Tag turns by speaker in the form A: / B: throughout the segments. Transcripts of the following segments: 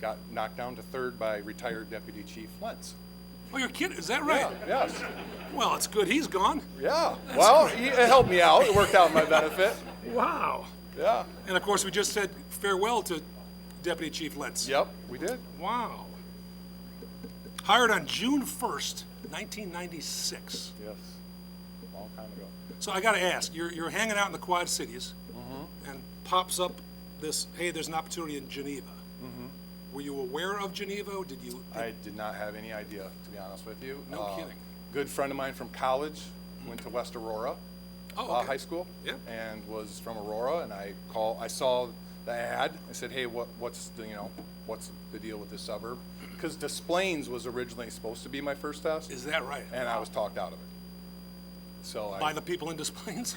A: got knocked down to third by retired Deputy Chief Lentz.
B: Oh, you're kidding, is that right?
A: Yes,
B: Well, it's good he's gone.
A: yeah. Well, he- it helped me out. It worked out in my benefit.
B: Wow.
A: Yeah,
B: And of course, we just said farewell to Deputy Chief Lentz.
A: yep, we did.
B: Wow. Hired on June 1st, 1996.
A: Yes, long time ago.
B: So I got to ask, you're, you're hanging out in the Quad Cities,
A: Mm-hmm.
B: and pops up this, hey, there's an opportunity in Geneva. Were you aware of Geneva? Did you?
A: Mm-hmm. I did not have any idea, to be honest with you.
B: No
A: Uh,
B: kidding.
A: Good friend of mine from college went to West Aurora.
B: Oh,
A: uh,
B: okay.
A: High school.
B: Yeah.
A: And was from Aurora, and I call, I saw the ad. I said, hey, what, what's, the you know, what's the deal with this suburb? Because Des Plaines was originally supposed to be my first test,
B: Is that right?
A: and I was talked out of it. So I.
B: By the people in Des Plaines?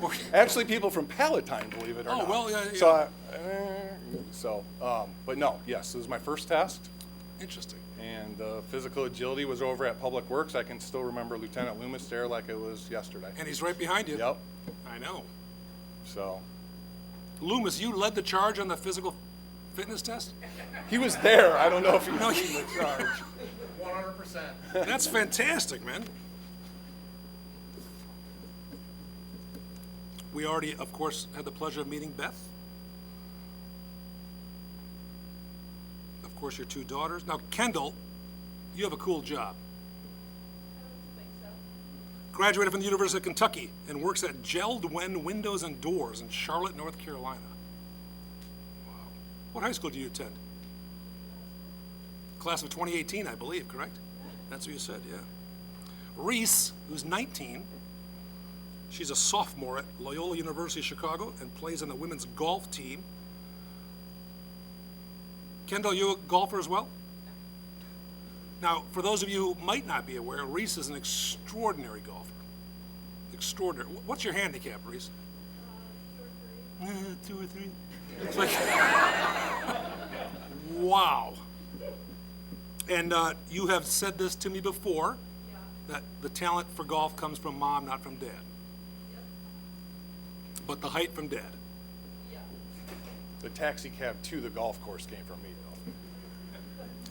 B: Or-
A: Actually, people from Palatine, believe it or
B: Oh,
A: not.
B: well, yeah,
A: So, I- eh, so, um, but no, yes, it was my first test,
B: Interesting.
A: and uh, physical agility was over at Public Works. I can still remember Lieutenant Loomis there like it was yesterday.
B: And he's right behind you.
A: Yep,
B: I know.
A: so,
B: Loomis, you led the charge on the physical fitness test?
A: he was there, I don't know if he
B: No,
A: was
B: he-
A: leading the charge.
C: One hundred percent.
B: That's fantastic, man. We already, of course, had the pleasure of meeting Beth. Of course, your two daughters. Now, Kendall, you have a cool job. Graduated from the University of Kentucky and works at Geldwen Windows and Doors in Charlotte, North Carolina. Wow. What high school do you attend? Class of 2018, I believe, correct? That's what you said, yeah. Reese, who's 19, she's a sophomore at Loyola University Chicago and plays on the women's golf team. Kendall, you a golfer as well? Now, for those of you who might not be aware, Reese is an extraordinary golfer. Extraordinary. Wh- What's your handicap, Reese? Uh, two or three. It's like, wow. And uh, you have said this to me before, that the talent for golf comes from mom, not from dad. But the height from dad.
A: The taxi cab to the golf course came from me, though.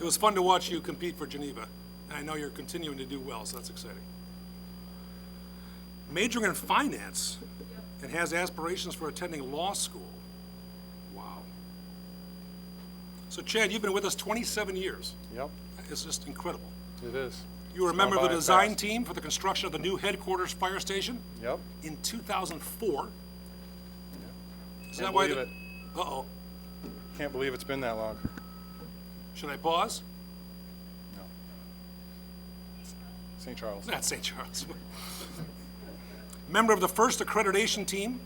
B: It was fun to watch you compete for Geneva, and I know you're continuing to do well, so that's exciting. Majoring in finance and has aspirations for attending law school. Wow. So Chad, you've been with us 27 years.
A: Yep,
B: It's just incredible.
A: it is.
B: You were a
A: It's gone
B: member of the
A: by
B: design
A: fast.
B: team for the construction of the new headquarters fire station?
A: Yep,
B: in 2004. Is
A: Can't
B: that why? the-
A: believe
B: Uh-oh.
A: can't believe it's been that long.
B: Should I pause?
A: No. St. Charles.
B: Not St. Charles. Member of the first accreditation team,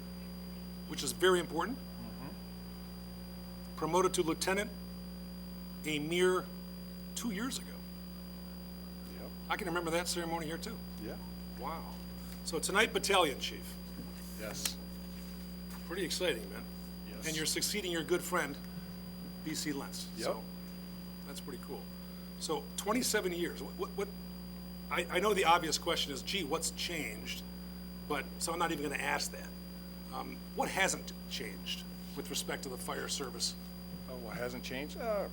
B: which is very important.
A: Mm-hmm.
B: Promoted to lieutenant a mere two years ago.
A: Yep,
B: I can remember that ceremony here, too.
A: yeah.
B: Wow. So tonight, battalion chief.
A: Yes.
B: Pretty exciting, man.
A: Yes.
B: And you're succeeding your good friend, B.C. Lentz.
A: Yep.
B: So That's pretty cool. So 27 years, what, what, I, I know the obvious question is, gee, what's changed? But, so I'm not even going to ask that. Um, What hasn't changed with respect to the fire service?
A: Oh, what hasn't changed? Uh,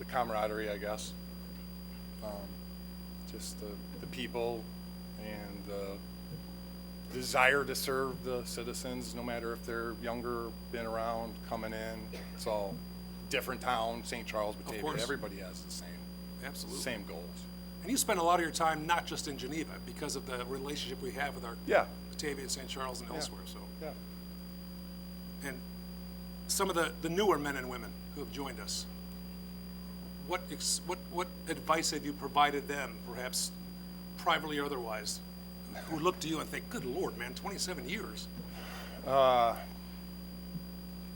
A: the camaraderie, I guess. Um, just the, the people and the desire to serve the citizens, no matter if they're younger, been around, coming in. It's all different town, St. Charles, Batavia.
B: course.
A: Everybody has the same,
B: Absolutely.
A: same goals.
B: And you spend a lot of your time not just in Geneva because of the relationship we have with our
A: Yeah.
B: Batavia, and St. Charles, and elsewhere, so.
A: Yeah.
B: and some of the, the newer men and women who have joined us, what, ex- what, what advice have you provided them, perhaps privately or otherwise, who look to you and think, good lord, man, 27 years?
A: I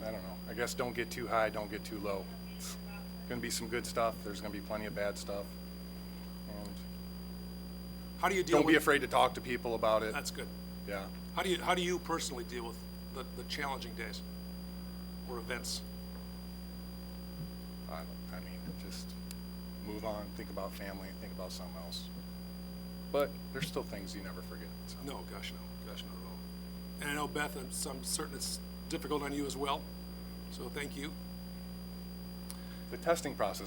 A: don't know. I guess don't get too high, don't get too low. Gonna be some good stuff. There's gonna be plenty of bad stuff. And
B: How do you deal
A: don't be
B: with?
A: afraid to talk to people about it.
B: That's good.
A: Yeah.
B: How do you, how do you personally deal with the, the challenging days or events?
A: I, don't- I mean, just move on, think about family, think about something else. But there's still things you never forget. So.
B: No, gosh, no, gosh, not at all. And I know Beth, I'm, so I'm certain it's difficult on you as well, so thank you.
A: The testing process